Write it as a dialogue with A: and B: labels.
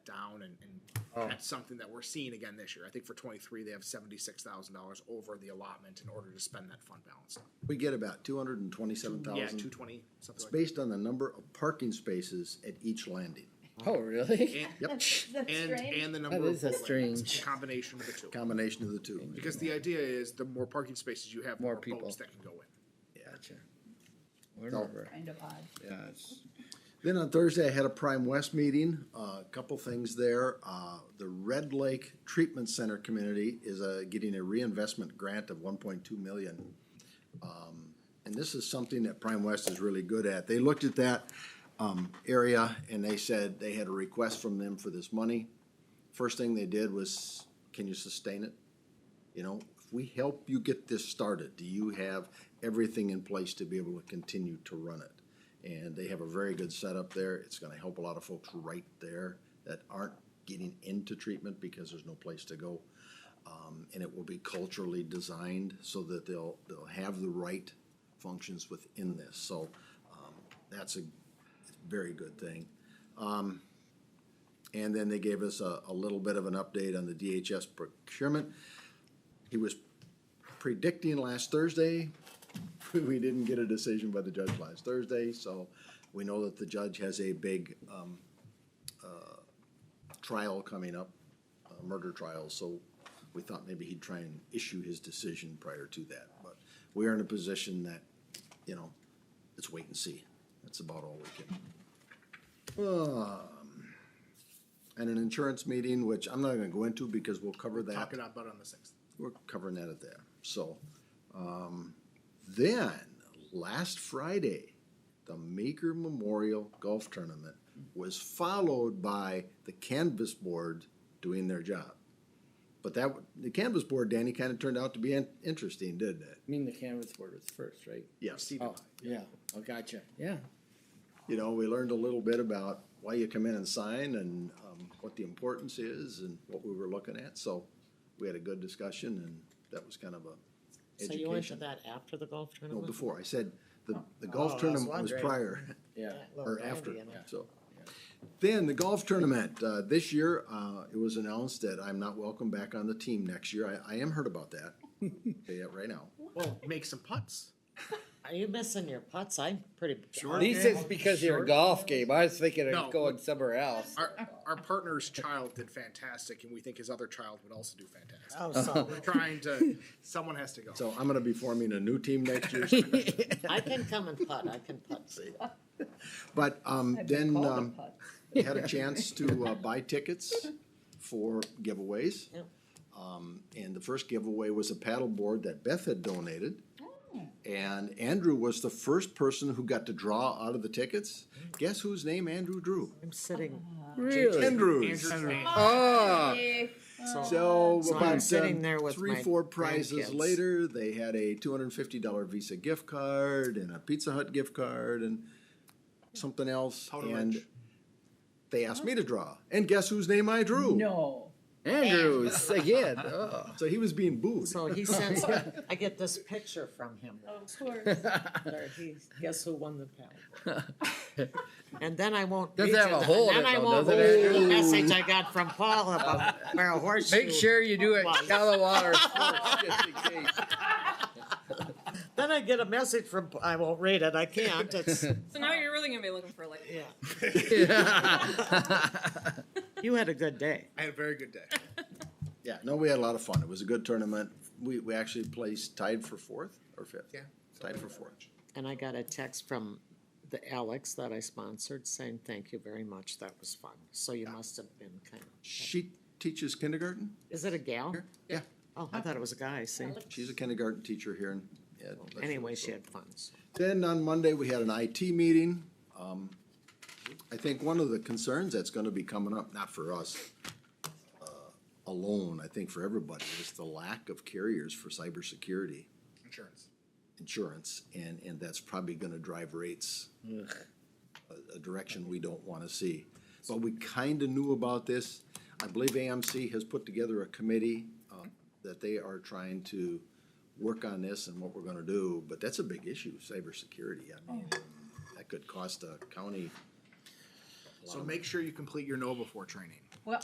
A: down and, and
B: Oh.
A: that's something that we're seeing again this year. I think for twenty-three, they have seventy-six thousand dollars over the allotment in order to spend that fund balance.
C: We get about two hundred and twenty-seven
A: Yeah, two
C: thousand.
A: twenty,
C: It's
A: something like that.
C: based on the number of parking spaces at each landing,
B: Oh, really?
A: And-
C: Yep.
D: That's
A: And,
D: strange.
A: and the number.
B: is
A: of
B: a
A: rollouts.
B: strange-
A: Combination of the two.
C: combination of the two.
A: Because the idea is the more parking spaces you have, the
B: More
A: more
B: people.
A: boats that can go in.
B: Gotcha. Whatever.
D: Kind of odd.
B: Yeah, it's,
C: Then on Thursday, I had a Prime West meeting, Uh, a couple things there. Uh, The Red Lake Treatment Center community is uh, getting a reinvestment grant of one point two million. Um, And this is something that Prime West is really good at. They looked at that um, area and they said they had a request from them for this money. First thing they did was, can you sustain it? You know, if we help you get this started, do you have everything in place to be able to continue to run it? And they have a very good setup there. It's gonna help a lot of folks right there that aren't getting into treatment because there's no place to go. Um, and it will be culturally designed so that they'll, they'll have the right functions within this. So, um, that's a very good thing. Um, and then they gave us a, a little bit of an update on the DHS procurement. He was predicting last Thursday. We didn't get a decision by the judge last Thursday, so we know that the judge has a big um, uh, trial coming up, a murder trial, so we thought maybe he'd try and issue his decision prior to that. But we are in a position that, you know, it's wait and see. That's about all we can. Um, And an insurance meeting, which I'm not gonna go into because we'll cover that
A: Talk it about on the sixth.
C: we're covering that at there. So, um, then last Friday, the Maker Memorial Golf Tournament was followed by the Canvas Board doing their job. But that the Canvas Board, Danny, kind of turned out to be in- interesting, didn't it?
B: I mean, the canvas board was first, right?
C: Yes.
B: Oh, yeah. Oh, gotcha. Yeah.
C: You know, we learned a little bit about why you come in and sign and um, what the importance is and what we were looking at. So, we had a good discussion, and that was kind of a
E: So
C: education.
E: you went to that after the golf
C: No,
E: tournament?
C: before, I said, the, the
E: Oh,
C: golf
E: that's
C: tournament was
E: wondering.
C: prior,
B: Yeah.
E: That little
C: or
E: guy
C: after,
E: being there.
C: so. Then the golf tournament, uh, this year, uh, it was announced that I'm not welcome back on the team next year, I, I am hurt about that. Say it right now,
A: Well, make some putts.
E: Are you missing your putts? I'm pretty.
A: Sure.
B: At least it's because you're a golf game. I was thinking of
A: No.
B: going somewhere else.
A: Our, our partner's child did fantastic and we think his other child would also do fantastic.
E: Oh, so
A: We're trying to, someone has to go.
C: so I'm gonna be forming a new team next year,
E: I can come and putt. I can putt. See,
C: but, um,
D: I've
C: then,
D: been called a
C: um,
D: putt.
C: had a chance to, uh, buy tickets for giveaways.
E: Yeah.
C: Um, and the first giveaway was a paddleboard that Beth had donated. And Andrew was the first person who got to draw out of the tickets. Guess whose name Andrew drew?
E: I'm sitting.
B: Really?
A: Andrew's
C: Andrew's.
D: Ah.
A: name.
B: Oh.
C: Ah. So
E: So I'm
C: about
E: sitting
C: um,
E: there with
C: three,
E: my
C: four prizes
E: grandkids.
C: later, they had a two hundred and fifty dollar Visa gift card and a Pizza Hut gift card and something else.
A: Total
C: and
A: lunch.
C: they asked me to draw, and guess whose name I drew?
D: Uh, No.
B: Andrews again. Oh.
C: So he was being booed.
E: So he sends. me- I get this picture from him.
D: Of course.
E: There, he- Guess who won the paddle? And then I won't.
B: Doesn't
E: read
B: have
E: you
B: a
E: the-
B: hole in
E: Then
B: it
E: I
B: though,
E: won't
B: does it,
E: read you the
B: Andrew?
E: message I got from Paul about where a horseshoe.
B: Make sure you do it
E: Well,
B: shallow water first, just in case.
E: Then I get a message from. I won't read it. I can't. It's
F: So now you're really gonna be looking for like
E: yeah.
B: Yeah.
E: You had a good day.
A: I had a very good day.
C: Yeah, no, we had a lot of fun. It was a good tournament. We, we actually placed tied for fourth or fifth.
A: Yeah.
C: Tied for fourth.
E: And I got a text from the Alex that I sponsored saying, thank you very much, that was fun. So you must have been kind of,
C: She teaches kindergarten
E: is it a gal?
C: Yeah.
E: Oh, I thought it was a guy, see?
C: She's a kindergarten teacher here in. yeah, Lexington.
E: Anyway, she had fun, so.
C: Then on Monday, we had an IT meeting. Um, I think one of the concerns that's gonna be coming up, not for us uh, alone, I think for everybody, is the lack of carriers for cybersecurity
A: Insurance.
C: insurance, and, and that's probably gonna drive rates a, a direction we don't wanna see. But we kinda knew about this. I believe AMC has put together a committee, uh, that they are trying to work on this and what we're gonna do, but that's a big issue, cybersecurity. I mean, that could cost a county
A: So make sure you complete your know before training.